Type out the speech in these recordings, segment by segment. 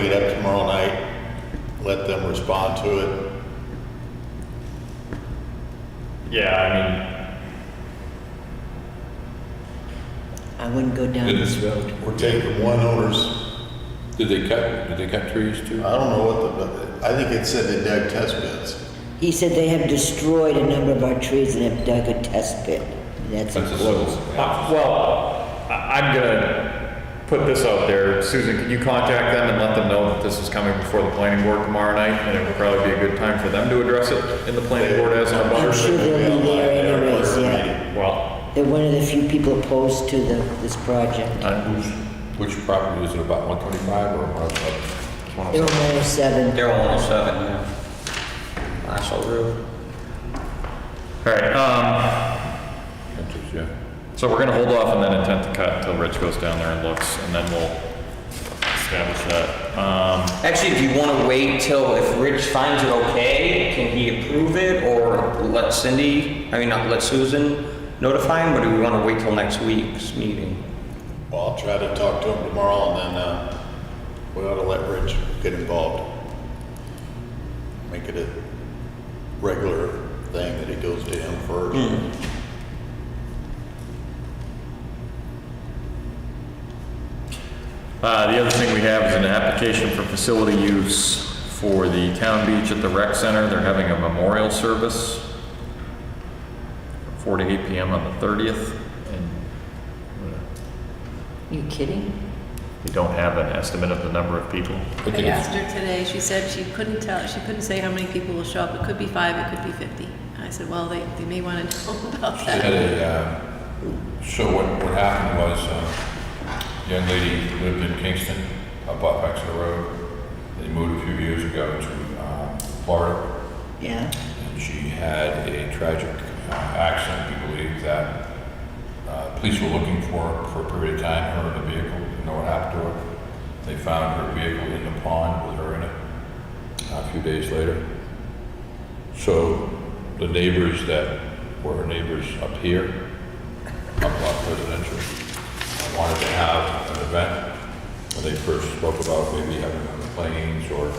Pick it up tomorrow night, let them respond to it. Yeah, I wouldn't go down Did this they, road. We're taking one owner's, did they cut, did they cut trees too? I don't know what the, but I think it said they dug test pits. He said they have destroyed a number of our trees and have dug a test pit. That's That's a important. I civil. mean, uh, well, I- I'm gonna put this out there. Susan, can you contact them and let them know that this is coming before the planning board tomorrow night? And it would probably be a good time for them to address it in the planning board as our I'm butters. sure they'll be there anyways, yeah. Well, They're one of the few people opposed to the, this project. uh, Who's, which property is it about, one twenty-five or one They're oh on seven? 107. Daryl 107, yeah. Marshall Road. all right, um, Yeah. so we're gonna hold off and then intent to cut until Rich goes down there and looks, and then we'll establish that. Um, Actually, if you want to wait till, if Rich finds it okay, can he approve it or let Cindy, I mean, not let Susan notify him, or do we want to wait till next week's meeting? Well, I'll try to talk to them tomorrow and then, uh, we ought to let Rich get involved. Make it a regular thing that it goes to him Hmm. first. Uh, The other thing we have is an application for facility use for the town beach at the rec center. They're having a memorial service from 4 to 8 PM on the 30th, and You kidding? they don't have an estimate of the number of people. I I think it's- asked her today, she said she couldn't tell, she couldn't say how many people will show up. It could be five, it could be 50. I said, well, they, they may want to know about They had that. a, uh, so what, what happened was, um, young lady lived in Kingston, up off Exeter Road. They moved a few years ago to, um, Florida. Yeah. And she had a tragic uh, accident, we believe, that uh, police were looking for her for a period of time, her in the vehicle, didn't know what happened to her. They found her vehicle in the pond with her in it uh, a few days later. So the neighbors that were her neighbors up here, up on Presidential, wanted to have an event. When they first spoke about maybe having it on the planes or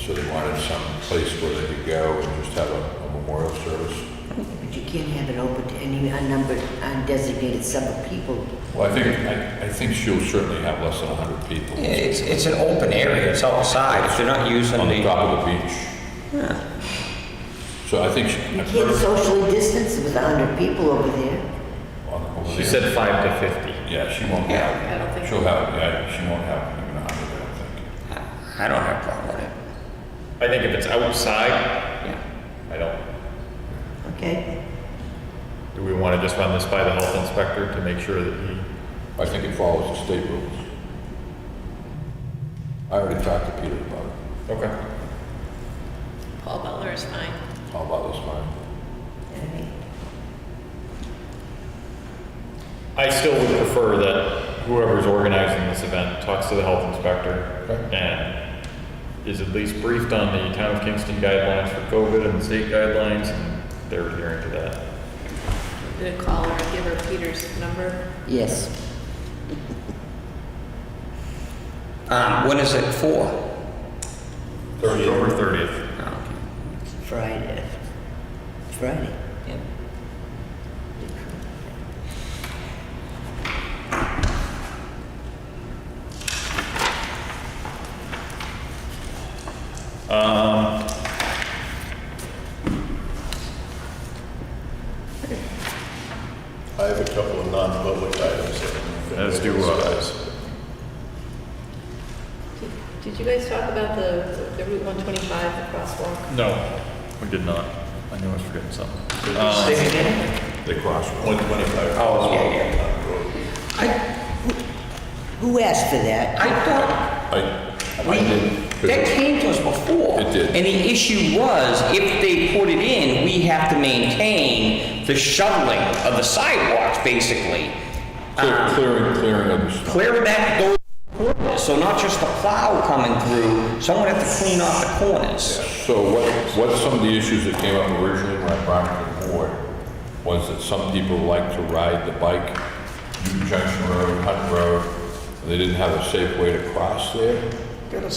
so they wanted some place where they could go and just have a, a memorial service. But you can't have it open to any unnumbered, undesignated sum of people. Well, I think, I, I think she'll certainly have less than hundred people Yeah, It's, it's an open area, it's outside, if they're not using on the the, top of the beach. So I think she. You can't socially distance with 100 people over there. on the- over She there. said 5 to 50. Yeah, she won't Yeah. I don't have, think- she'll have, yeah, she won't have even a hundred, I don't think. I don't have a problem with it. I think if it's outside, Yeah. I don't, Okay? do we want to just run this by the health inspector to make sure that he, I think it follows the state rules. I already talked to Peter about it, okay. Paul Butler is fine. all about this one. I still would prefer that whoever's organizing this event talks to the health inspector Okay. and is at least briefed on the town of Kingston guidelines for COVID and the state guidelines, and they're adhering to that. I'm going to call her and give her Peter's number. Yes. Um, when is it for? October thirtieth. Oh, Friday. Friday. okay. Um, I have a couple of non-public items. that- Let's do, uh, Did- Did you guys talk about the, the Route 125, the crosswalk? no, we did not. I knew I was forgetting something. Say it again? They cross. One twenty-five. Um, Oh, yeah, yeah. I, Who asked for that? I thought I, I We, did. that came to us before. It did. And the issue was, if they put it in, we have to maintain the shoveling of the sidewalks, basically. Uh, Clear- Clearing, clearing of the snow. Clear back those corners, so not just the plow coming through, someone had to clean off the corners. So what, what some of the issues that came up originally when I brought it to the board was that some people like to ride the bike, Union Junction Road, Hunt Road, and they didn't have a safe way to cross there.